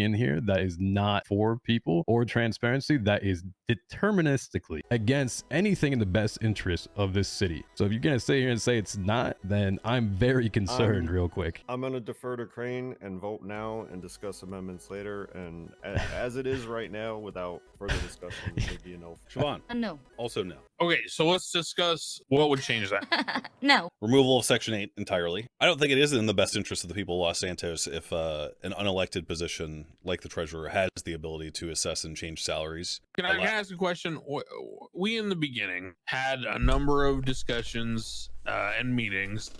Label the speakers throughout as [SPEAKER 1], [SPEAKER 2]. [SPEAKER 1] in here that is not for people or transparency that is deterministically against anything in the best interest of this city. So if you're gonna sit here and say it's not, then I'm very concerned
[SPEAKER 2] Um,
[SPEAKER 1] real quick.
[SPEAKER 2] I'm going to defer to Crane and vote now and discuss amendments later. And a- as it is right now, without further discussion, it would be a no.
[SPEAKER 3] Siobhan,
[SPEAKER 4] Uh, no.
[SPEAKER 3] also no.
[SPEAKER 5] Okay, so let's discuss what would change that.
[SPEAKER 4] no.
[SPEAKER 3] Removal of Section 8 entirely. I don't think it is in the best interest of the people of Los Santos if uh, an unelected position like the treasurer has the ability to assess and change salaries.
[SPEAKER 5] Can I,
[SPEAKER 3] Allow-
[SPEAKER 5] can I ask a question? W- w- We in the beginning had a number of discussions uh, and meetings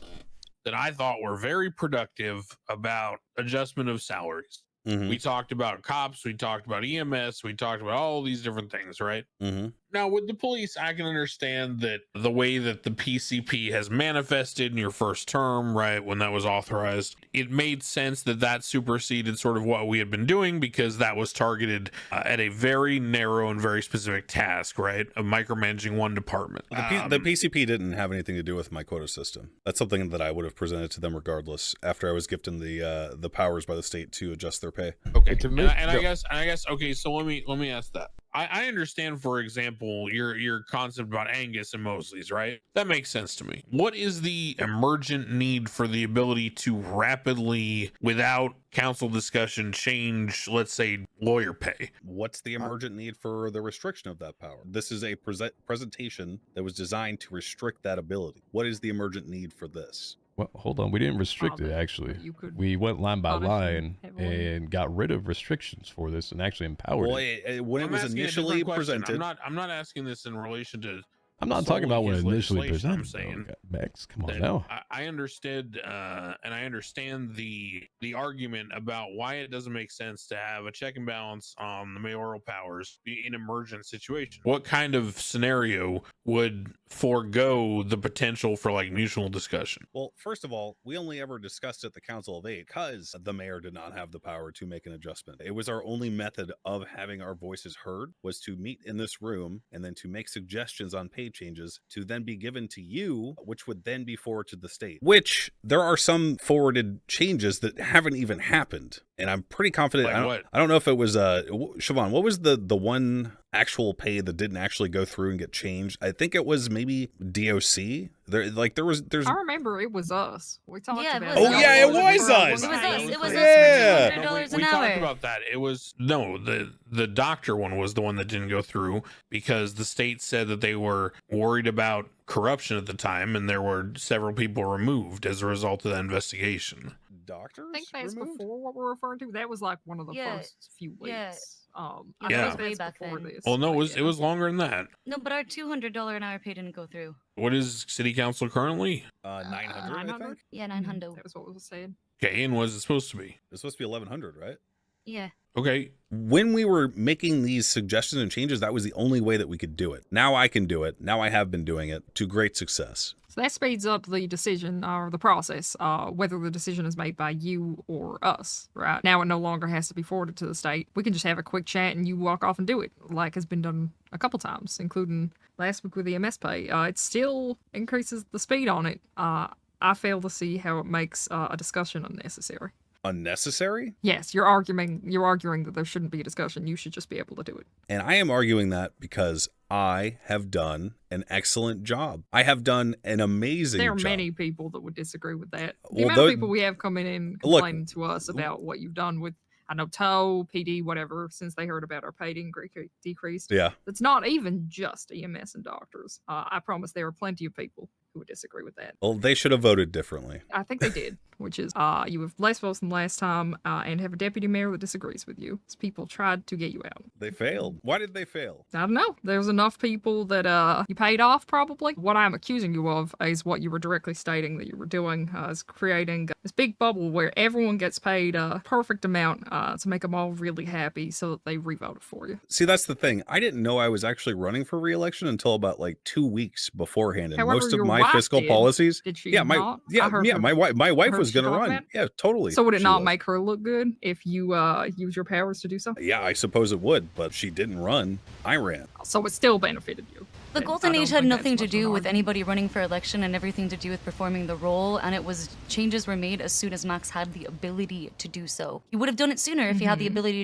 [SPEAKER 5] that I thought were very productive about adjustment of salaries.
[SPEAKER 3] Mm-hmm.
[SPEAKER 5] We talked about cops, we talked about EMS, we talked about all these different things, right?
[SPEAKER 3] mm-hmm.
[SPEAKER 5] Now, with the police, I can understand that the way that the PCP has manifested in your first term, right, when that was authorized, it made sense that that superseded sort of what we had been doing because that was targeted uh, at a very narrow and very specific task, right, of micromanaging one department.
[SPEAKER 3] The, P- the
[SPEAKER 5] Um,
[SPEAKER 3] PCP didn't have anything to do with my quota system. That's something that I would have presented to them regardless. After I was gifted the uh, the powers by the state to adjust their pay.
[SPEAKER 5] okay
[SPEAKER 6] to
[SPEAKER 5] and,
[SPEAKER 6] make-
[SPEAKER 5] I- and i
[SPEAKER 6] go-
[SPEAKER 5] guess and i guess okay so let me let me ask that I, I understand for example your your concept about angus and mosley's right that makes sense to me what is the emergent need for the ability to rapidly without council discussion change let's say lawyer pay
[SPEAKER 3] What's the
[SPEAKER 2] Uh,
[SPEAKER 3] emergent need for the restriction of that power? This is a present presentation that was designed to restrict that ability. What is the emergent need for this?
[SPEAKER 1] Well, hold on, we didn't restrict it
[SPEAKER 7] Father,
[SPEAKER 1] actually.
[SPEAKER 7] you could-
[SPEAKER 1] We went line by
[SPEAKER 7] Father,
[SPEAKER 1] line
[SPEAKER 7] everyone-
[SPEAKER 1] and got rid of restrictions for this and actually empowered.
[SPEAKER 3] Well,
[SPEAKER 1] it.
[SPEAKER 3] it, it- eh, when
[SPEAKER 5] I'm
[SPEAKER 3] it was
[SPEAKER 5] asking a different
[SPEAKER 3] initially
[SPEAKER 5] question.
[SPEAKER 3] presented,
[SPEAKER 5] i'm not i'm not asking this in relation to
[SPEAKER 1] I'm not
[SPEAKER 5] solely
[SPEAKER 1] talking about when
[SPEAKER 5] his
[SPEAKER 1] it initially presented.
[SPEAKER 5] legislation, I'm
[SPEAKER 1] I'm
[SPEAKER 5] saying.
[SPEAKER 1] saying, Max, come on
[SPEAKER 5] that
[SPEAKER 1] now.
[SPEAKER 5] I, I understood uh, and I understand the the argument about why it doesn't make sense to have a check and balance on the mayoral powers i- in emergent situations. What kind of scenario would forego the potential for like mutual discussion?
[SPEAKER 3] well, first of all, we only ever discussed at the Council of Eight because the mayor did not have the power to make an adjustment. It was our only method of having our voices heard was to meet in this room and then to make suggestions on pay changes to then be given to you, which would then be forwarded to the state. Which there are some forwarded changes that haven't even happened, and I'm pretty confident.
[SPEAKER 5] Like
[SPEAKER 3] I don't-
[SPEAKER 5] what?
[SPEAKER 3] I don't know if it was uh w- Siobhan, what was the the one actual pay that didn't actually go through and get changed? I think it was maybe DOC. There like there was there's
[SPEAKER 7] I remember it was us. We talked
[SPEAKER 4] Yeah, it
[SPEAKER 7] about
[SPEAKER 4] was
[SPEAKER 3] Oh, us. yeah, it
[SPEAKER 7] for a
[SPEAKER 3] was
[SPEAKER 7] long
[SPEAKER 3] us.
[SPEAKER 4] It was
[SPEAKER 7] time.
[SPEAKER 4] us. It was us.
[SPEAKER 3] Yeah.
[SPEAKER 4] For
[SPEAKER 5] No, we,
[SPEAKER 4] $200
[SPEAKER 5] we
[SPEAKER 4] an
[SPEAKER 5] talked
[SPEAKER 4] hour.
[SPEAKER 5] about that. It was no the the doctor one was the one that didn't go through because the state said that they were worried about corruption at the time, and there were several people removed as a result of that investigation.
[SPEAKER 3] doctors.
[SPEAKER 7] I think that's
[SPEAKER 3] removed?
[SPEAKER 7] before what we're referring to. That was like one of the
[SPEAKER 4] Yeah,
[SPEAKER 7] first few weeks.
[SPEAKER 4] yeah.
[SPEAKER 7] Um,
[SPEAKER 4] Yeah,
[SPEAKER 7] I
[SPEAKER 5] Yeah.
[SPEAKER 7] think
[SPEAKER 4] way
[SPEAKER 7] that's
[SPEAKER 4] back
[SPEAKER 7] before
[SPEAKER 4] then.
[SPEAKER 7] this.
[SPEAKER 5] Well, no,
[SPEAKER 7] but
[SPEAKER 5] it was
[SPEAKER 7] yeah.
[SPEAKER 5] it was longer than that.
[SPEAKER 4] No, but our two hundred dollar an hour pay didn't go through.
[SPEAKER 5] What is city council currently?
[SPEAKER 3] Uh, 900, I
[SPEAKER 7] 900?
[SPEAKER 3] think.
[SPEAKER 4] Yeah,
[SPEAKER 7] Mhm,
[SPEAKER 4] nine hundo.
[SPEAKER 7] That was what we were saying.
[SPEAKER 5] Okay, and was it supposed to be?
[SPEAKER 3] It's supposed to be 1100, right?
[SPEAKER 4] Yeah.
[SPEAKER 5] Okay,
[SPEAKER 3] When we were making these suggestions and changes, that was the only way that we could do it. Now I can do it. Now I have been doing it to great success.
[SPEAKER 7] So that speeds up the decision or the process, uh, whether the decision is made by you or us, right? Now it no longer has to be forwarded to the state. We can just have a quick chat and you walk off and do it, like has been done a couple times, including last week with the MS pay. Uh, it still increases the speed on it. Uh, I fail to see how it makes uh, a discussion unnecessary.
[SPEAKER 3] Unnecessary?
[SPEAKER 7] Yes, you're arguing you're arguing that there shouldn't be a discussion. You should just be able to do it.
[SPEAKER 3] And I am arguing that because I have done an excellent job. I have done an amazing
[SPEAKER 7] There are
[SPEAKER 3] job.
[SPEAKER 7] many people that would disagree with that. The
[SPEAKER 3] Well,
[SPEAKER 7] amount
[SPEAKER 3] tho-
[SPEAKER 7] of people we have coming in
[SPEAKER 3] Look,
[SPEAKER 7] complaining to us about what you've done with, I know, tow, PD, whatever, since they heard about our paid incre- decreased.
[SPEAKER 3] Yeah.
[SPEAKER 7] It's not even just EMS and doctors. Uh, I promise there are plenty of people who would disagree with that.
[SPEAKER 3] Well, they should have voted differently.
[SPEAKER 7] I think they did, which is uh, you have less votes than last time uh, and have a deputy mayor that disagrees with you. It's people tried to get you out.
[SPEAKER 3] They failed. Why did they fail?
[SPEAKER 7] I don't know. There's enough people that uh, you paid off, probably. What I'm accusing you of is what you were directly stating that you were doing uh, is creating this big bubble where everyone gets paid a perfect amount uh, to make them all really happy so that they revoted for you.
[SPEAKER 3] See, that's the thing. I didn't know I was actually running for reelection until about like two weeks beforehand, and
[SPEAKER 7] However,
[SPEAKER 3] most of
[SPEAKER 7] your
[SPEAKER 3] my
[SPEAKER 7] wife
[SPEAKER 3] fiscal
[SPEAKER 7] did.
[SPEAKER 3] policies.
[SPEAKER 7] Did she?
[SPEAKER 3] Yeah, my
[SPEAKER 7] not? I
[SPEAKER 3] yeah
[SPEAKER 7] heard
[SPEAKER 3] yeah
[SPEAKER 7] her-
[SPEAKER 3] my wife my wife
[SPEAKER 7] heard
[SPEAKER 3] was
[SPEAKER 7] she
[SPEAKER 3] gonna
[SPEAKER 7] talk
[SPEAKER 3] run.
[SPEAKER 7] about it.
[SPEAKER 3] Yeah, totally.
[SPEAKER 7] So would it
[SPEAKER 3] she
[SPEAKER 7] not
[SPEAKER 3] was.
[SPEAKER 7] make her look good if you uh, use your powers to do something?
[SPEAKER 3] Yeah, I suppose it would, but she didn't run. I ran.
[SPEAKER 7] So it still benefited you.
[SPEAKER 4] The
[SPEAKER 7] I
[SPEAKER 4] Golden
[SPEAKER 7] don't
[SPEAKER 4] Age had
[SPEAKER 7] think
[SPEAKER 4] nothing
[SPEAKER 7] that's
[SPEAKER 4] to
[SPEAKER 7] much of an
[SPEAKER 4] do with
[SPEAKER 7] argument.
[SPEAKER 4] anybody running for election and everything to do with performing the role, and it was changes were made as soon as Max had the ability to do so. He would have done it sooner if he had the
[SPEAKER 7] Mhm.
[SPEAKER 4] ability